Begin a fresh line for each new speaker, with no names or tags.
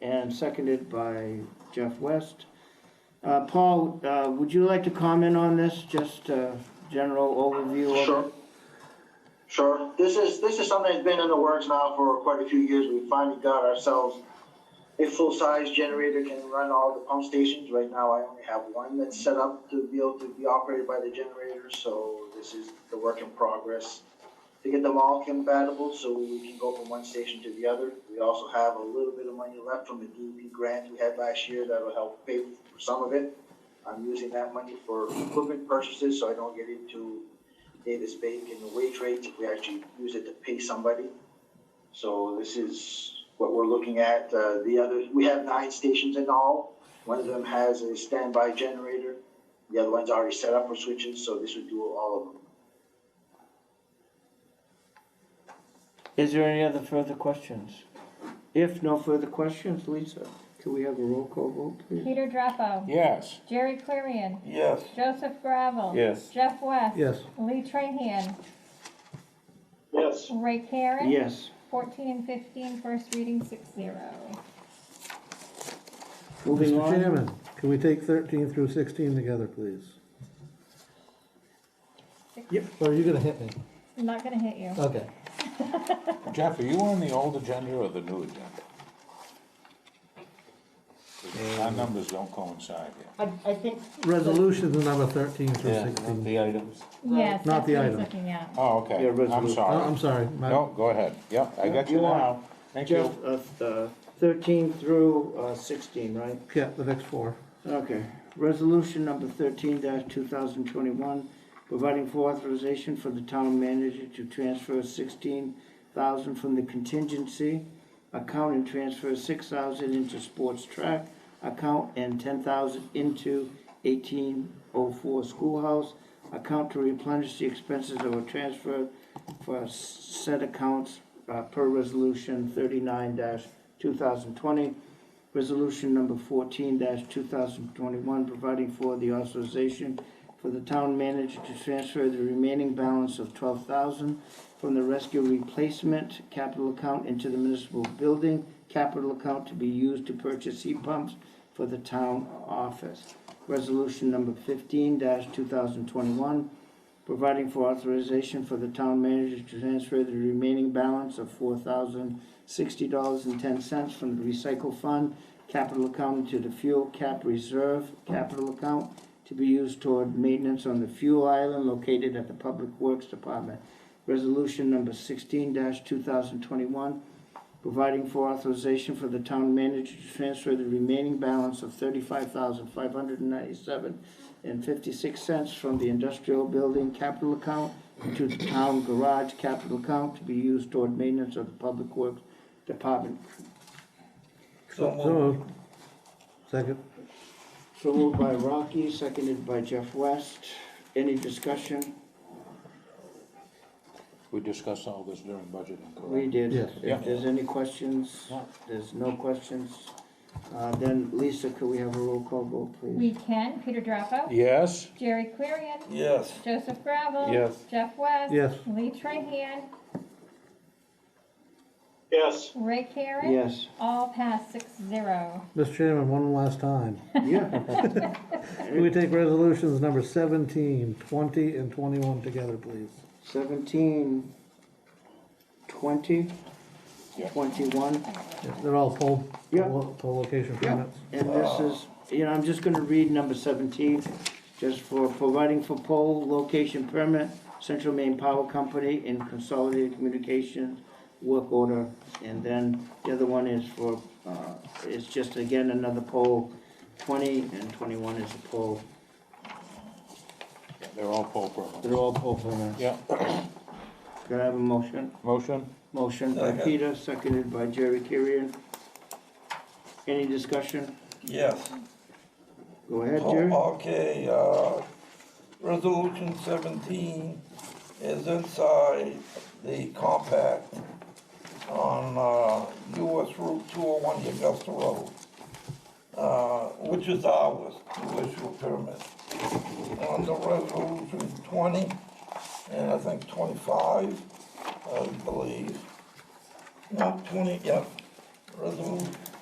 and seconded by Jeff West. Uh, Paul, uh, would you like to comment on this, just uh general overview of it?
Sure. Sure. This is, this is something that's been in the works now for quite a few years. We finally got ourselves a full-size generator can run all the pump stations. Right now, I only have one that's set up to be able to be operated by the generator, so this is the work in progress. To get them all compatible, so we can go from one station to the other. We also have a little bit of money left from the DEP grant we had last year that'll help pay for some of it. I'm using that money for equipment purchases, so I don't get into Davis Bacon wage rates if we actually use it to pay somebody. So this is what we're looking at. Uh, the other, we have nine stations in all. One of them has a standby generator. The other one's already set up for switches, so this would do all of them.
Is there any other further questions? If no further questions, Lisa, can we have a roll call vote, please?
Peter Drapo.
Yes.
Jerry Clarion.
Yes.
Joseph Gravel.
Yes.
Jeff West.
Yes.
Lee Trahan.
Yes.
Ray Karen.
Yes.
14 and 15, first reading, 6-0.
Moving
Mr.
on,
Chairman, can we take thirteen through sixteen together, please?
Yep.
Or are you Oh, gonna hit me?
I'm not gonna hit you.
Okay.
Jeff, are you on the old agenda or the new agenda? 'Cause Our numbers don't coincide here.
I, I think,
Resolutions number thirteen through
Yeah,
sixteen.
the items.
Yes, that's
Not the
what he's
item.
looking at.
Oh,
Yeah,
okay, I'm
resolution.
Oh,
sorry.
I'm sorry, my-
No, go ahead, yeah, I got you
You are.
now, thank
Jeff,
you.
uh, uh, thirteen through, uh, sixteen, right?
yeah, the next four.
Okay, resolution number thirteen two thousand twenty-one, providing for authorization for the town manager to transfer sixteen thousand from the contingency account and transfer six thousand into sports track account and ten thousand into eighteen oh four schoolhouse account to replenish the expenses that were transferred for said accounts uh, per resolution thirty-nine two thousand twenty Resolution number fourteen two thousand twenty-one, providing for the authorization for the town manager to transfer the remaining balance of twelve thousand from the rescue replacement capital account into the municipal building capital account to be used to purchase heat pumps for the town office. Resolution number fifteen two thousand twenty-one, providing for authorization for the town manager to transfer the remaining balance of four thousand sixty dollars and ten cents from the recycle fund capital account to the fuel cap reserve capital account to be used toward maintenance on the fuel island located at the Public Works Department. Resolution number sixteen two thousand twenty-one, providing for authorization for the town manager to transfer the remaining balance of thirty-five thousand five hundred and ninety-seven and fifty-six cents from the industrial building capital account to the town garage capital account to be used toward maintenance of the public works department.
So moved. Second.
So moved by Rocky, seconded by Jeff West. Any discussion?
We discussed all this during budgeting,
We
correct?
did.
Yes.
Yeah.
If there's any questions,
No.
there's no questions. Uh, then Lisa, could we have a roll call vote, please?
We can, Peter Drapo.
Yes,
Jerry Clarion.
Yes.
Joseph Gravel.
Yes.
Jeff West.
Yes.
Lee Trahan.
Yes.
Ray Karen.
Yes,
All pass 6-0.
Mr. Chairman, one last time.
yeah.
Can we take resolutions number 17, 20, and twenty-one together, please?
Seventeen, twenty,
Yeah.
twenty-one.
Yeah, They're all poll,
Yeah.
poll poll location
Yeah.
permits.
And this is, you know, I'm just gonna read number seventeen, just for providing for pole location permit, Central Maine Power Company in Consolidated Communications Work Order. And then the other one is for, uh, it's just again another pole, twenty and twenty-one is a pole.
they're all poll programs.
They're all pole permits.
Yeah,
Can I have a motion?
motion?
Motion by
Second.
Peter, seconded by Jerry Kirian. Any discussion?
Yes. Oh,
Go ahead, Jerry.
Okay, uh, resolution seventeen is inside the compact on, uh, US Route two oh one Augusta Road, uh, which is ours, to issue a permit. Under resolution twenty, and I think twenty-five, I believe, not twenty, yeah, resolution